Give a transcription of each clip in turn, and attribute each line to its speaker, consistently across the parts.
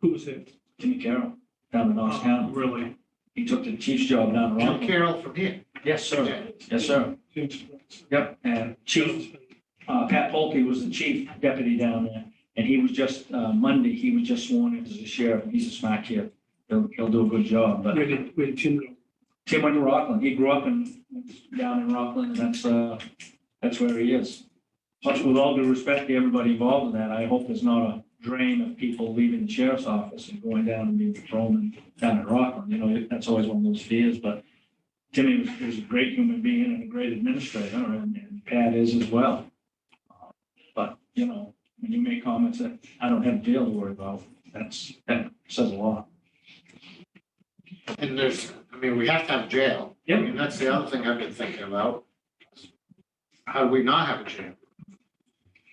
Speaker 1: Who was it?
Speaker 2: Jimmy Carroll, down in Orange County.
Speaker 1: Really?
Speaker 2: He took the chief's job down in
Speaker 3: Jim
Speaker 2: Orange.
Speaker 3: Carroll from here.
Speaker 2: Yes, sir. Yes, sir.
Speaker 1: Chief.
Speaker 2: Yep. And Chief, uh, Pat Polkey was the chief deputy down there. And he was just, uh, Monday, he was just sworn in as a sheriff. He's a smart kid. He'll, he'll do a good job, but
Speaker 1: Where did, where did Jim go?
Speaker 2: Tim went to Rockland. He grew up in, down in Rockland, and that's, uh, that's where he is. Plus, with all due respect to everybody involved in that, I hope there's not a drain of people leaving the sheriff's office and going down and being patrolmen down in Rockland. You know, that's always one of those fears, but Timmy was, was a great human being and a great administrator, and and Pat is as well. But, you know, when you make comments that I don't have jail to worry about, that's, that says a lot.
Speaker 3: And there's, I mean, we have to have jail.
Speaker 2: Yep.
Speaker 3: And that's the other thing I've been thinking about. How do we not have a jail?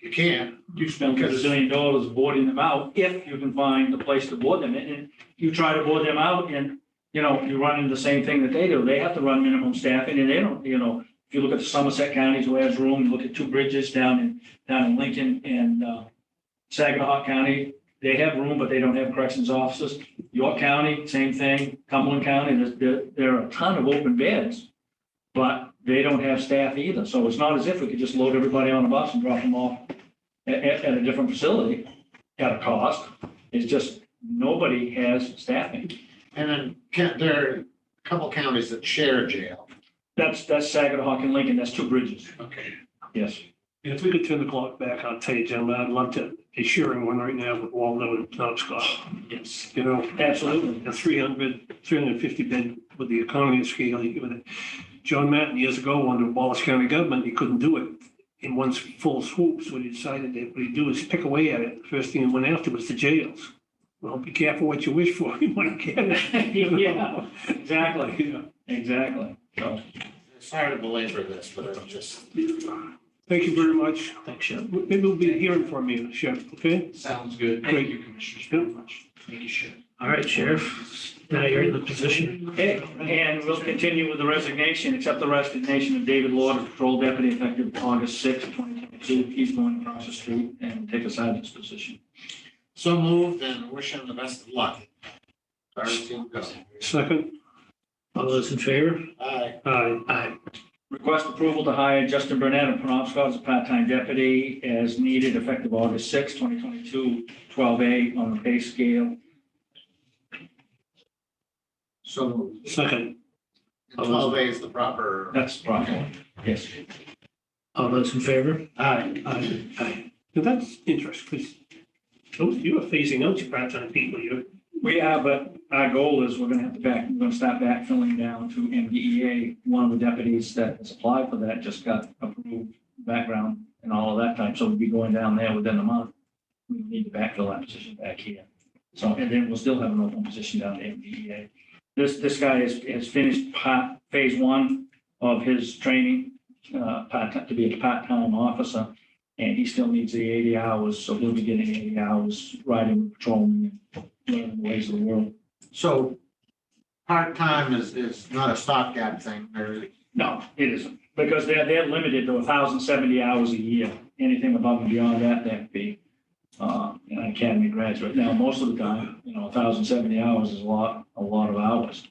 Speaker 3: You can't.
Speaker 2: you spend a zillion dollars boarding them out if you can find a place to board them. And and you try to board them out and, you know, you run into the same thing that they do. They have to run minimum staffing and they don't, you know, if you look at the Somerset counties who has room, you look at two bridges down in, down in Lincoln and uh, Saginaw County, they have room, but they don't have corrections officers. York County, same thing. Cumberland County, there's- there, there are a ton of open beds, but they don't have staff either. So it's not as if we could just load everybody on a bus and drop them off at, at, at a different facility at a cost. It's just nobody has staffing.
Speaker 3: And then can't, there are a couple counties that share jail.
Speaker 2: That's, that's Saginaw and Lincoln. That's two bridges.
Speaker 3: Okay.
Speaker 2: Yes.
Speaker 1: And If we could turn the clock back, I'll tell you, gentlemen, I'd love to be sharing one right now with Waldo and Knobscott.
Speaker 2: Yes.
Speaker 1: You know,
Speaker 2: Absolutely.
Speaker 1: a 300, 350 bid with the economy scale. you give it- John Matten years ago wanted to abolish county government. He couldn't do it in one full swoop. So he decided that what he'd do is pick away at it. First thing he went after was the jails. Well, be careful what you wish for. You might get it. you know?
Speaker 2: Yeah, exactly,
Speaker 1: Yeah.
Speaker 2: exactly. So,
Speaker 3: Sorry to belabor this, but I'm just.
Speaker 1: Thank you very much.
Speaker 2: thanks, Shep.
Speaker 1: Maybe we'll be hearing from you, Sheriff, okay?
Speaker 3: Sounds good.
Speaker 1: Great.
Speaker 3: Thank you, Commissioners, very much. Thank you, Sheriff.
Speaker 4: All right, Sheriff, now you're in the position.
Speaker 2: Okay, and we'll continue with the resignation, accept the resignation of David Lord, patrol deputy effective August sixth, twenty twenty-two. He's going across the street and take a sergeant's position.
Speaker 3: So moved and wish him the best of luck. Our team goes.
Speaker 1: Second,
Speaker 4: All those in favor?
Speaker 3: Aye.
Speaker 1: aye.
Speaker 4: Aye.
Speaker 2: Request approval to hire Justin Burnett of Penobscot as a part-time deputy as needed effective August 6, 2022, 12A on the pay scale.
Speaker 3: So moved.
Speaker 1: Second,
Speaker 3: And Twelve A is the proper.
Speaker 2: That's proper. Yes.
Speaker 4: All those in favor?
Speaker 3: Aye.
Speaker 4: Aye. Aye.
Speaker 1: now that's interesting, because you are phasing out your part-time people, you're,
Speaker 2: We are, but our goal is we're going to have to back, we're going to start backfilling down to MDEA. One of the deputies that has applied for that just got approved background and all of that type. So we'll be going down there within a month. We need to backfill that position back here. So, and then we'll still have an open position down at MDEA. E This, this guy has, has finished part, phase one of his training, uh, part, to be a part-time officer. And he still needs the eighty hours, so he'll be getting eighty hours riding with patrolmen and learn the ways of the world.
Speaker 3: So part-time is, is not a stopgap thing, or
Speaker 2: No, it isn't, because they're, they're limited to thousand seventy hours a year. Anything above and beyond that, that'd be, uh, an academy graduate. Now, most of the time, you know, thousand seventy hours is a lot, a lot of hours.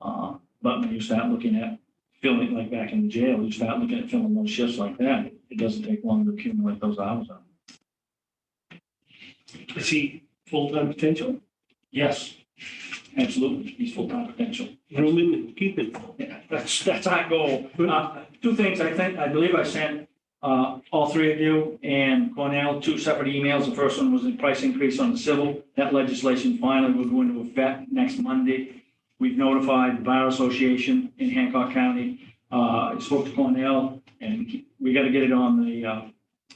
Speaker 2: Uh, but when you start looking at filling, like back in jail, you start looking at filling those shifts like that, it doesn't take long to accumulate those hours up.
Speaker 1: is he full-time potential?
Speaker 2: Yes, absolutely, he's full-time potential.
Speaker 1: Groom him and keep him.
Speaker 2: Yeah, that's, that's our goal. Uh, Two things, I think, I believe I sent uh, all three of you and Cornell two separate emails. The first one was the price increase on the civil. That legislation finally will go into effect next Monday. We've notified the Bar Association in Hancock County. Uh, I Spoke to Cornell, and we got to get it on the, uh,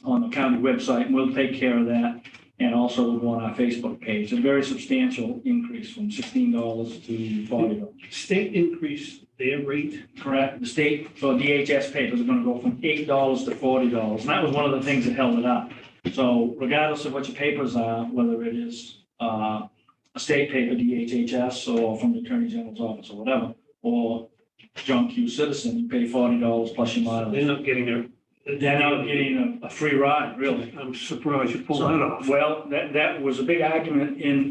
Speaker 2: on the county website. and We'll take care of that. And also we'll go on our Facebook page. A very substantial increase from $16 to 40 dollars
Speaker 1: State increase their rate,
Speaker 2: Correct. The state, so DHS papers are gonna go from eight dollars to forty dollars, and that was one of the things that held it up. So regardless of what your papers are, whether it is, uh, a state paper, DHHS, or from the Attorney General's office or whatever, or John Q. Citizen, you pay forty dollars plus your mileage.
Speaker 1: they're not getting their.
Speaker 2: They're now getting a, a free ride, really.
Speaker 1: I'm surprised you pulled that off.
Speaker 2: Well, that, that was a big argument in